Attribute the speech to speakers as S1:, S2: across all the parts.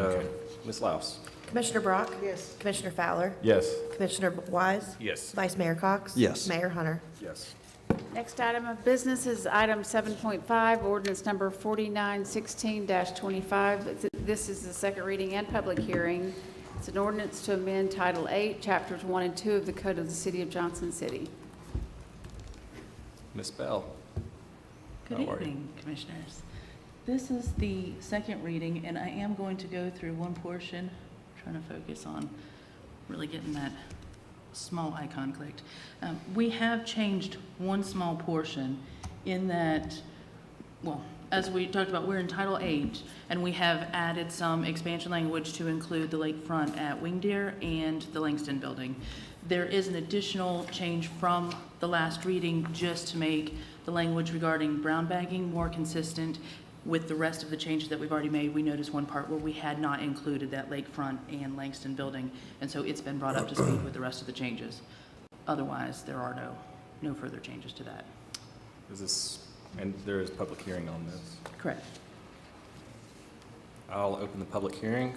S1: Um, Ms. Laus?
S2: Commissioner Brock?
S3: Yes.
S2: Commissioner Fowler?
S1: Yes.
S2: Commissioner Wise?
S1: Yes.
S2: Vice Mayor Cox?
S4: Yes.
S2: Mayor Hunter?
S1: Yes.
S3: Next item of business is item 7.5, ordinance number 4916-25. This is the second reading and public hearing. It's an ordinance to amend Title 8, Chapters 1 and 2 of the Code of the City of Johnson City.
S1: Ms. Bell?
S5: Good
S1: How are you?
S5: evening, Commissioners. This is the second reading, and I am going to go through one portion, trying to focus on really getting that small icon clicked. Um, We have changed one small portion in that, well, as we talked about, we're in Title VIII, and we have added some expansion language to include the lakefront at Wing Deer and the Langston Building. There is an additional change from the last reading just to make the language regarding brown bagging more consistent with the rest of the changes that we've already made. We noticed one part where we had not included that lakefront and Langston Building, and so it's been brought up to speed with the rest of the changes. Otherwise, there are no, no further changes to that.
S1: Is this, and there is public hearing on this.
S5: Correct.
S1: I'll open the public hearing.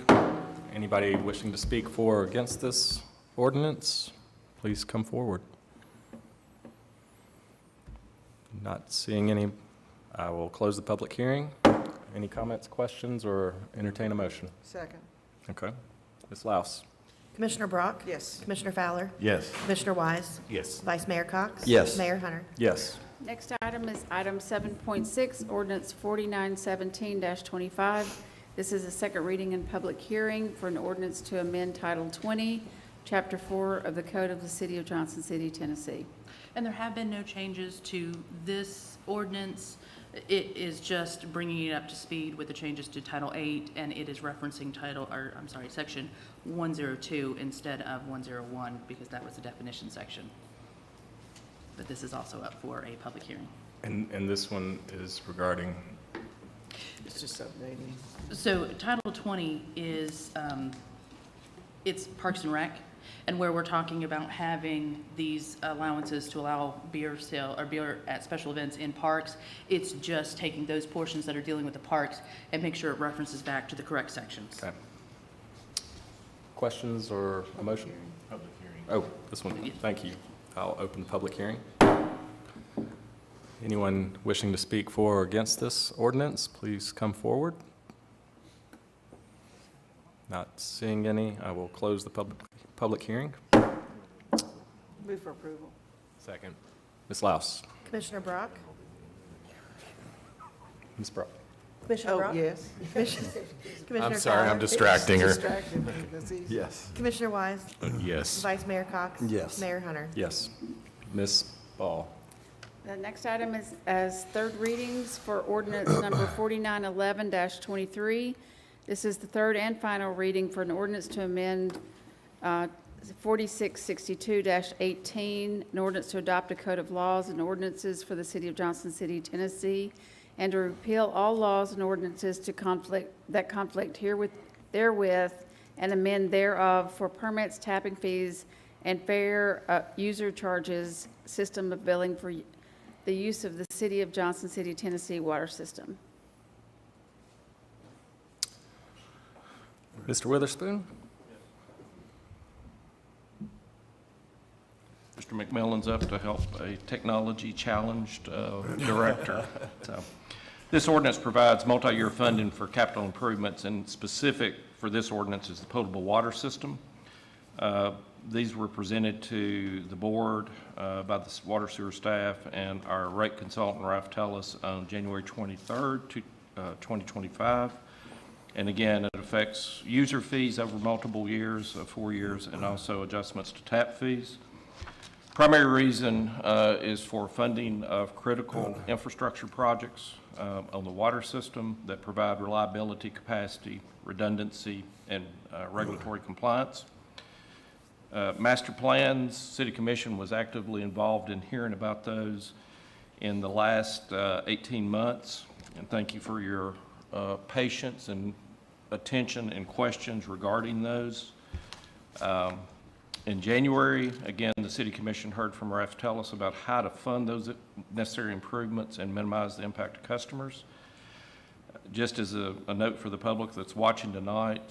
S1: Anybody wishing to speak for or against this ordinance, please come forward. Not seeing any, I will close the public hearing. Any comments, questions, or entertain a motion?
S3: Second.
S1: Okay. Ms. Laus?
S2: Commissioner Brock?
S3: Yes.
S2: Commissioner Fowler?
S1: Yes.
S2: Commissioner Wise?
S1: Yes.
S2: Vice Mayor Cox?
S4: Yes.
S2: Mayor Hunter?
S1: Yes.
S3: Next item is item 7.6, ordinance 4917-25. This is a second reading and public hearing for an ordinance to amend Title 20, Chapter 4 of the Code of the City of Johnson City, Tennessee.
S5: And there have been no changes to this ordinance. It is just bringing it up to speed with the changes to Title VIII, and it is referencing title, or, I'm sorry, Section 102 instead of 101, because that was the definition section. But this is also up for a public hearing.
S1: And, and this one is regarding,
S6: It's just updating.
S5: So Title 20 is, um, it's Parks and Rec, and where we're talking about having these allowances to allow beer sale, or beer at special events in parks, it's just taking those portions that are dealing with the parks and make sure it references back to the correct sections.
S1: okay. Questions or a motion? Public hearing. Oh, this one, thank you. I'll open the public hearing. Anyone wishing to speak for or against this ordinance, please come forward. Not seeing any, I will close the public, public hearing.
S6: Move for approval.
S1: Second. Ms. Laus?
S2: Commissioner Brock?
S1: Ms. Brock?
S2: Commissioner
S6: Oh,
S2: Brock?
S6: yes.
S2: Commissioner
S7: I'm sorry, I'm
S2: Fowler?
S7: distracting her.
S6: Distracted me, that's easy.
S4: Yes.
S2: Commissioner Wise?
S7: Yes.
S2: Vice Mayor Cox?
S4: Yes.
S2: Mayor Hunter?
S1: Yes. Ms. Ball?
S3: The next item is, as third readings for ordinance number 4911-23. This is the third and final reading for an ordinance to amend uh, 4662-18, an ordinance to adopt a code of laws and ordinances for the city of Johnson City, Tennessee, and to repeal all laws and ordinances to conflict, that conflict herewith, therewith, and amend thereof for permits, tapping fees, and fair uh, user charges system of billing for the use of the city of Johnson City, Tennessee water system.
S1: Mr. Witherspoon?
S8: Mr. McMillan's up to help a technology-challenged uh, director. So, This ordinance provides multi-year funding for capital improvements, and specific for this ordinance is the potable water system. Uh, These were presented to the board uh, by the s- water sewer staff and our rate consultant, Ralph Tellis, on January 23rd, to- uh, 2025. And again, it affects user fees over multiple years, uh, four years, and also adjustments to tap fees. Primary reason uh, is for funding of critical infrastructure projects uh, on the water system that provide reliability, capacity, redundancy, and uh, regulatory compliance. Uh, Master plans, City Commission was actively involved in hearing about those in the last uh, 18 months, and thank you for your uh, patience and attention and questions regarding those. Um, In January, again, the City Commission heard from Ralph Tellis about how to fund those necessary improvements and minimize the impact to customers. Just as a a note for the public that's watching tonight,